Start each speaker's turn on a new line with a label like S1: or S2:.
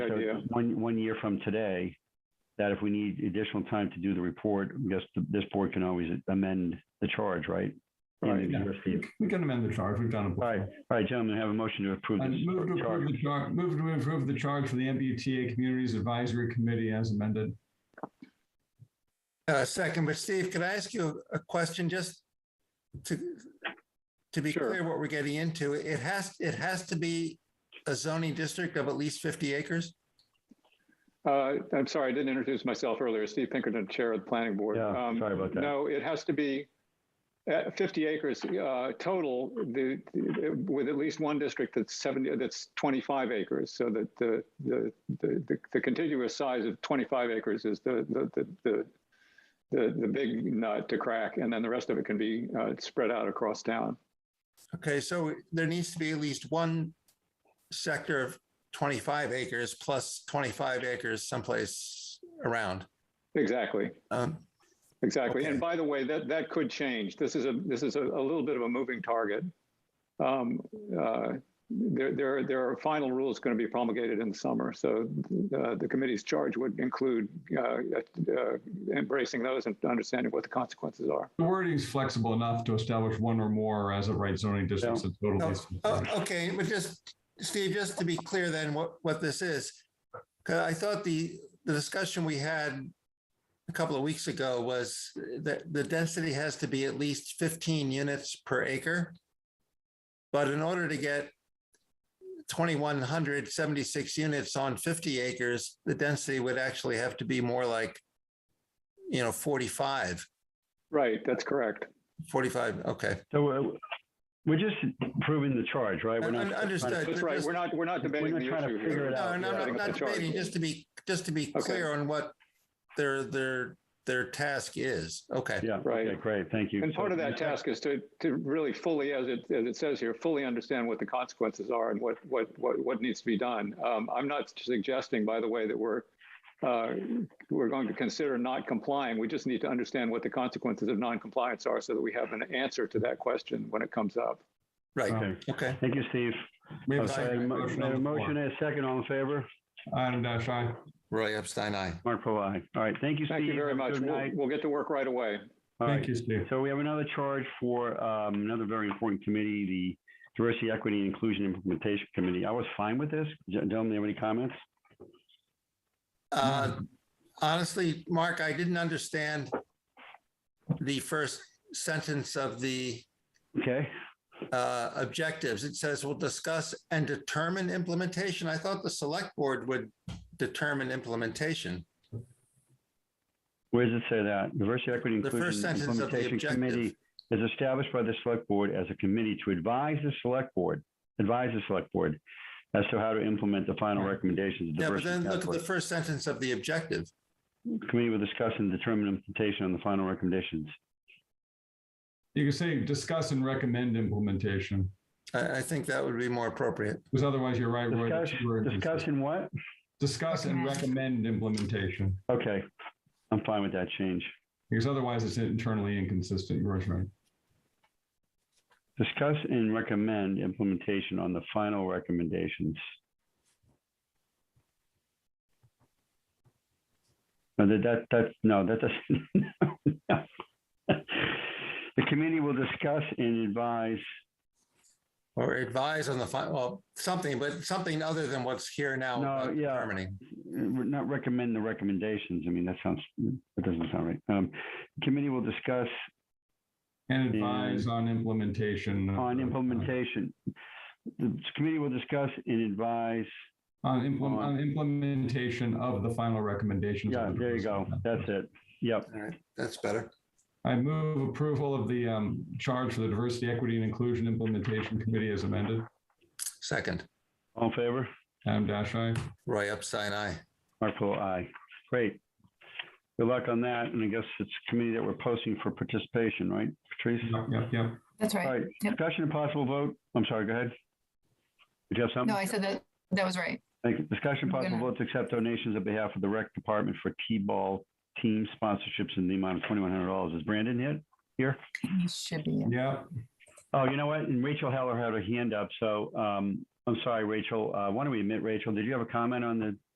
S1: Good
S2: So
S1: idea.
S2: One, one year from today, that if we need additional time to do the report, I guess th- this board can always amend the charge, right? In the
S1: Right.
S2: existing-
S3: We can amend the charge. We've done it
S2: All
S3: before.
S2: right, all right, gentlemen, have a motion to approve
S3: And move to
S2: this charge.
S3: approve the charge, move to approve the charge for the MBTA Communities Advisory Committee as amended.
S4: Uh, Second, but Steve, could I ask you a question just to, to be
S1: Sure.
S4: clear what we're getting into? It has, it has to be a zoning district of at least 50 acres?
S1: Uh, I'm sorry, I didn't introduce myself earlier. Steve Pinkerton, Chair of the Planning Board.
S2: Yeah,
S1: Um,
S2: sorry about that.
S1: No, it has to be uh, 50 acres uh, total, the- the- with at least one district that's 70, that's 25 acres. So that the, the, the the- the contiguous size of 25 acres is the, the, the, the, the the big nut to crack, and then the rest of it can be uh, spread out across town.
S4: Okay, so there needs to be at least one sector of 25 acres plus 25 acres someplace around.
S1: Exactly.
S4: Um,
S1: Exactly.
S4: Okay.
S1: And by the way, that, that could change. This is a, this is a, a little bit of a moving target. Um, uh, there, there, there are final rules going to be promulgated in the summer. So uh, the committee's charge would include uh, uh, embracing those and understanding what the consequences are.
S3: The wording is flexible enough to establish one or more as a right zoning districts. and total
S4: No.
S3: districts.
S4: Oh, okay, but just, Steve, just to be clear then, what, what this is. 'cause I thought the, the discussion we had a couple of weeks ago was that the density has to be at least fifteen units per acre. But in order to get twenty-one hundred seventy-six units on fifty acres, the density would actually have to be more like, you know, 45.
S1: Right. That's correct.
S4: 45. okay.
S2: So uh, we're just approving the charge, right? We're not
S4: Un- understood.
S2: trying to-
S1: That's right. We're not, we're not debating
S2: not
S1: the
S2: trying to
S1: issue
S2: figure
S1: here.
S2: it
S4: No,
S2: out.
S4: and
S2: yeah.
S4: I'm
S1: Setting
S4: not-
S1: up
S4: not
S1: the charge.
S4: debating, just to be, just to be
S1: Okay.
S4: clear on what their, their, their task is. Okay,
S2: Yeah,
S1: Right.
S2: okay, great, thank you.
S1: And
S2: So
S1: part of
S2: the
S1: that
S2: next-
S1: task is to, to really fully, as it, as it says here, fully understand what the consequences are and what, what, what, what needs to be done. Um, I'm not suggesting, by the way, that we're, uh, we're going to consider not complying. We just need to understand what the consequences of noncompliance are so that we have an answer to that question when it comes up.
S4: right,
S2: Okay,
S4: okay.
S2: thank you, Steve.
S3: We have a
S2: Okay,
S3: second
S2: mo-
S3: motion
S2: a
S3: on the
S2: motion
S3: floor. uh,
S2: and a second, all in favor?
S3: Adam Dash, aye.
S4: Roy Epstein, aye.
S2: Mark Provine. All right, thank you, Steve.
S1: Thank you very
S2: Have a
S1: much.
S2: Good
S1: We'll,
S2: night.
S1: we'll get to work right away.
S2: All right.
S3: Thank you, Steve.
S2: So we have another charge for um, another very important committee, the Diversity, Equity, and Inclusion Implementation Committee. I was fine with this. Gen- Gentlemen, have any comments? Mm-hmm.
S4: Uh, Honestly, Mark, I didn't understand the first sentence of the
S2: Okay,
S4: uh, objectives. It says, we'll discuss and determine implementation. I thought the select board would determine implementation.
S2: where does it say that? Diversity, Equity,
S4: The first
S2: Inclusion
S4: sentence of the
S2: Implementation
S4: objective.
S2: Committee is established by the Select Board as a committee to advise the Select Board, advise the Select Board as to how to implement the final recommendations of
S4: Yeah, but
S2: diversity.
S4: then look at the
S2: Task
S4: first sentence of the objective.
S2: Force. Committee will discuss and determine implementation on the final recommendations.
S3: You can say discuss and recommend implementation,
S4: I, I think that would be more appropriate.
S3: because otherwise you're right. Roy, the
S2: Discuss,
S3: two words is-
S2: discussing what?
S3: Discuss and recommend implementation,
S2: Okay, I'm fine with that change.
S3: because otherwise it's internally inconsistent. Roy's right.
S2: Discuss and recommend implementation on the final recommendations. No, that, that, that, no, that doesn't. no. The committee will discuss and advise,
S4: Or advise on the final, well, something, but something other than what's here now.
S2: No,
S4: about
S2: yeah.
S4: determining.
S2: not recommend the recommendations. I mean, that sounds, that doesn't sound right. Um, committee will discuss
S3: And advise on implementation. of-
S2: on implementation. The committee will discuss and advise
S3: On implement, on implementation of the final recommendations. of
S2: Yeah,
S3: the
S2: there you go.
S3: diversity
S2: That's it. Yep.
S4: All right, that's better.
S3: I move approval of the um, charge for the Diversity, Equity, and Inclusion Implementation Committee as amended.
S4: Second,
S2: All in favor?
S3: Adam Dash, aye.
S4: Roy Epstein, aye.
S2: Mark Polo, aye. Great. Good luck on that. And I guess it's a committee that we're posting for participation, right, Patrice?
S3: Yep, yep, yep.
S5: That's
S2: All
S5: right.
S2: right,
S5: Yep.
S2: discussion and possible vote. I'm sorry, go ahead. Did you have something?
S5: No, I said that, that was right.
S2: Thank you. Discussion and possible
S5: gonna-
S2: vote to accept donations on behalf of the rec department for T-ball team sponsorships in the amount of twenty-one hundred dollars. Is Brandon hit here?
S5: He should be. in.
S3: Yep.
S2: Oh, you know what? And Rachel Heller had her hand up. So, um, I'm sorry, Rachel. Uh, why don't we admit, Rachel, did you have a comment on the